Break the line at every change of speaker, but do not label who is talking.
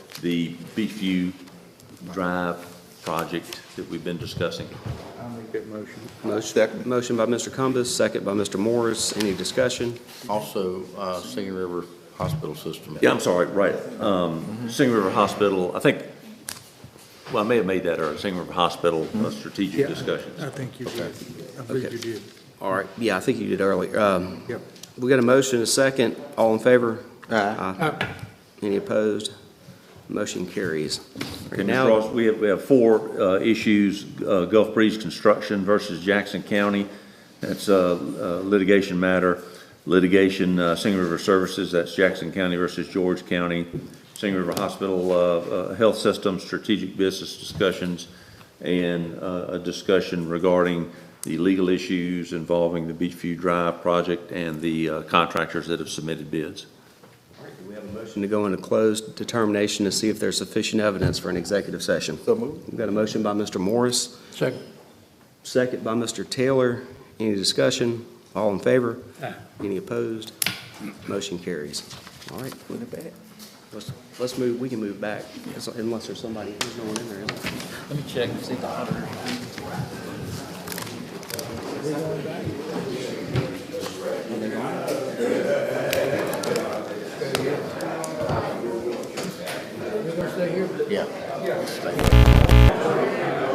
the Beachview Drive project that we've been discussing.
I'll make that motion.
Motion motion by Mr. Cumbus, second by Mr. Morris. Any discussion?
Also, uh, Singing River Hospital System.
Yeah, I'm sorry, right. Um, Singing River Hospital, I think, well, I may have made that our Singing River Hospital uh, strategic
I
discussions.
think you did. I believe you did.
All right, yeah, I think you did earlier. Um,
Yep.
We got a motion, a second. All in favor? Aye.
Uh,
Any opposed? Motion carries.
And Ms.
Now,
Ross, we have, we have four uh, issues, uh, Gulf Breeze Construction versus Jackson County. That's a litigation matter. Litigation, uh, Singing River Services, that's Jackson County versus George County. Singing River Hospital uh, uh, Health System Strategic Business Discussions, and uh, a discussion regarding the legal issues involving the Beachview Drive project and the uh, contractors that have submitted bids.
we have a motion to go into closed determination to see if there's sufficient evidence for an executive session.
So moved.
We've got a motion by Mr. Morris,
Second.
second by Mr. Taylor. Any discussion? All in favor?
Aye.
Any opposed? Motion carries. All right. Let's, let's move, we can move back, unless there's somebody, there's no one in there, is there?
Let me check and see the auditor. Yeah. Stay here.